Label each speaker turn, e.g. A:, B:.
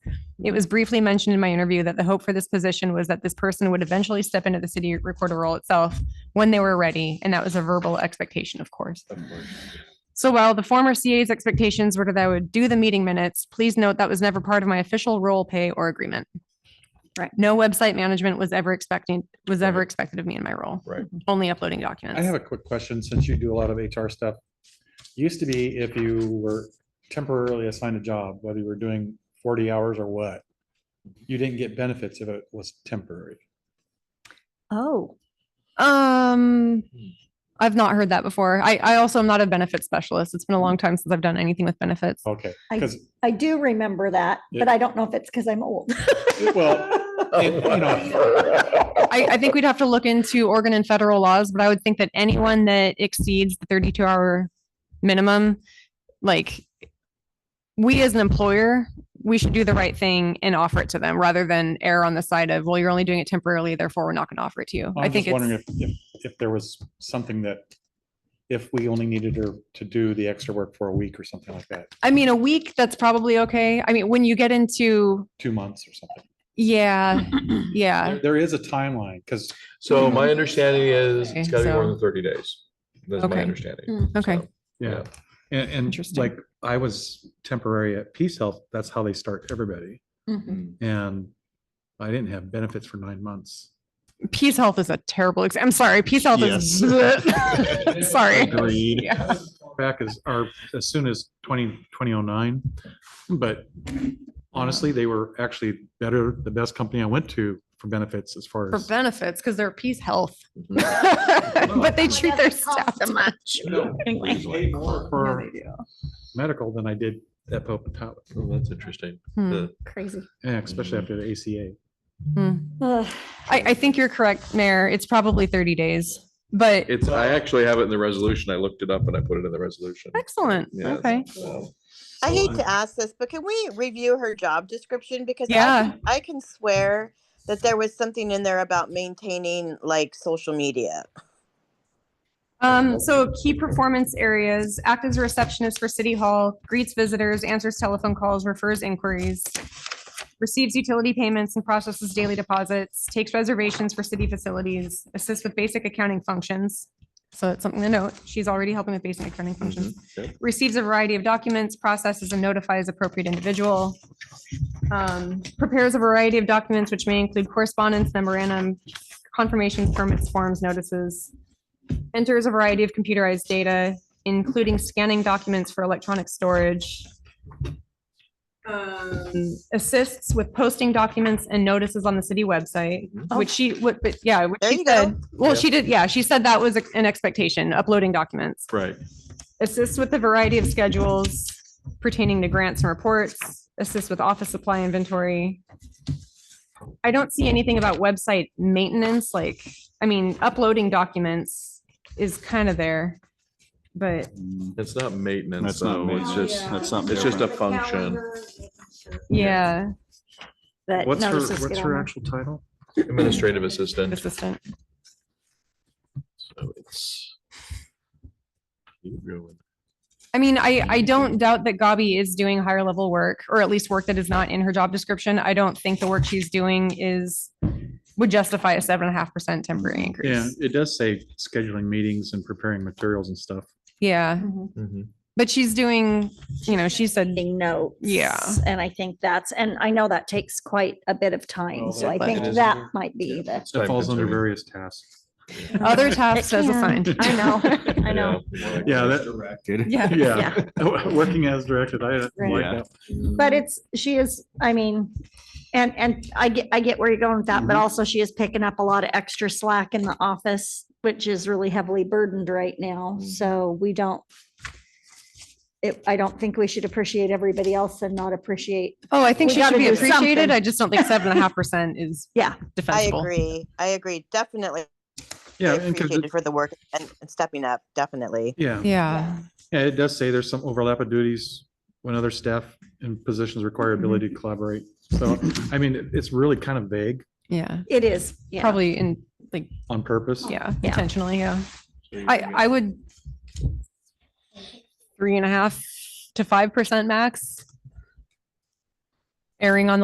A: It was briefly mentioned in my interview that the hope for this position was that this person would eventually step into the city recorder role itself when they were ready, and that was a verbal expectation, of course. So while the former CA's expectations were that I would do the meeting minutes, please note that was never part of my official role pay or agreement.
B: Right.
A: No website management was ever expecting, was ever
C: Right.
A: expected of me in my role.
C: Right.
A: Only uploading
C: I have
A: documents.
C: a quick question, since you do a lot of HR stuff. Used to be if you were temporarily assigned a job, whether you were doing forty hours or what, you didn't get benefits if it was temporary.
B: Oh,
A: Um,
C: Hmm.
A: I've not heard that before. I, I also am not a benefit specialist. It's been a long
C: Hmm.
A: time since I've done anything with benefits.
C: Okay,
B: I-
C: because,
B: I do remember that, but
C: Yeah.
B: I don't know if it's because I'm old.
C: well, it- you know,
A: I, I think we'd have to look into Oregon and federal laws, but I would think that anyone that exceeds the thirty-two hour minimum, like we as an employer, we should do the right thing and offer it to them rather than err on the side of, well, you're only doing it temporarily, therefore we're not going to offer it to you. I
C: I'm
A: think
C: just wondering if,
A: it's,
C: if, if there was something that, if we only needed her to do the extra work for a week or something like that,
A: I mean, a week, that's probably okay. I mean, when you get into,
C: two months or something.
A: yeah, yeah.
C: There- There is a timeline, because
D: So my understanding is
A: Okay,
D: it's gotta be more
A: so-
D: than thirty days. That's
A: Okay. Hmm.
D: my understanding.
B: Mm.
A: Okay.
D: So,
C: Yeah, and, and
A: Interesting.
C: like I was temporary at Peace Health, that's how they start everybody.
D: mm.
A: Mm-hmm.
C: And I didn't have benefits for nine months.
A: Peace Health is a terrible, ex- I'm sorry, Peace Health is, sorry.
C: Agreed.
A: Yeah.
C: Back as, or as soon as twenty, twenty oh nine. But honestly, they were actually better, the best company I went to for benefits as far
A: for
C: as.
A: benefits because they're Peace Health,
D: Mhm.
A: but they
B: Well,
A: treat
B: that
A: their
B: would cost
A: staff too much.
C: No,
B: Anyway.
C: they paid
D: Mm-hmm.
C: more For medical than I did at Pope and Talbot,
D: Oh, That's interesting.
A: Hmm.
D: The-
B: Crazy.
C: Yeah, especially
A: Mm-hmm.
C: after the ACA.
B: Ugh.
A: I, I think you're correct, Mayor. It's probably 30 days, but
D: It's, I actually have it in the resolution. I looked it up and I put it in the resolution.
A: excellent.
D: Yeah,
A: Okay.
D: so-
E: I
C: So
E: hate
C: I'm-
E: to ask this, but can we review her job description? Because I
A: Yeah.
E: can- I can swear that there was something in there about maintaining like social media.
A: Um, so key performance areas, act as a receptionist for City Hall, greets visitors, answers telephone calls, refers inquiries, receives utility payments and processes daily deposits, takes reservations for city facilities, assists with basic accounting functions. So that's something to note. She's already helping with basic accounting functions.
D: yep.
A: Receives a variety of documents, processes and notifies appropriate individual. Um, prepares a variety of documents which may include correspondence, memorandum, confirmations, permits, forms, notices, enters a variety of computerized data, including scanning documents for electronic storage. Um, Assists with posting documents and notices on the city website, which she, what, but yeah, which
E: Oh. There
A: she
E: you go.
A: said, well,
D: Yeah.
A: she did, yeah, she said that was a- an expectation, uploading documents.
D: Right.
A: Assists with a variety of schedules pertaining to grants and reports, assists with office supply inventory. I don't see anything about website maintenance, like, I mean, uploading documents is kind of there. But
D: It's not maintenance.
F: That's not,
D: though. It's
F: it's
D: just,
F: just, that's something.
D: it's just a
F: different.
D: function.
A: yeah,
B: But
C: What's her,
B: notices
C: what's
B: get
C: her
B: on
C: actual title?
D: Administrative assistant.
A: assistant.
D: So it's. you go with-
A: I mean, I, I don't doubt that Gabi is doing higher level work, or at least work that is not in her job description. I don't think the work she's doing is, would justify a seven and a half percent temporary increase.
C: Yeah, it does say scheduling meetings and preparing materials and stuff.
A: Yeah,
B: there. Mhm.
D: Mhm.
A: but she's doing, you know, she said
B: Taking notes.
A: Yeah.
B: And I think that's, and I know that takes quite a bit of time,
C: Well,
B: so
C: it-
B: I
C: Oh, it
B: think
D: is-
B: that might be the.
C: That
D: Time
C: falls under
D: consuming.
C: various tasks.
A: Other tasks
B: It
A: as
B: can.
A: assigned.
B: I know, I know.
D: Yeah.
C: Yeah, that,
A: Yeah.
C: yeah, working as directed, I don't like
F: Yeah.
C: that.
B: But it's, she is, I mean, and, and I get, I get where you're going with that, but also she is picking up a lot of extra slack in the office, which is really heavily burdened right now.
D: Mhm.
B: So we don't. It, I don't think we should appreciate everybody else and not appreciate,
A: Oh, I think
B: We
A: she should
B: gotta
A: be
B: do
A: appreciated.
B: something.
A: I just don't think seven and a half percent is
B: yeah,
E: I
A: defensible.
E: agree. I agree. Definitely
C: Yeah, and 'cause
E: appreciated
C: it-
E: for the work and and stepping up, definitely.
C: yeah,
A: Yeah.
C: yeah, it does say there's some overlap of duties when other staff and positions require ability to collaborate. So, I mean, it- it's really kind of vague
A: Yeah.
B: it is. yeah.
A: Probably in,
C: on purpose.
A: yeah,
B: Yeah.
A: intentionally. Yeah. I, I would three and a half to 5% max. Erring on the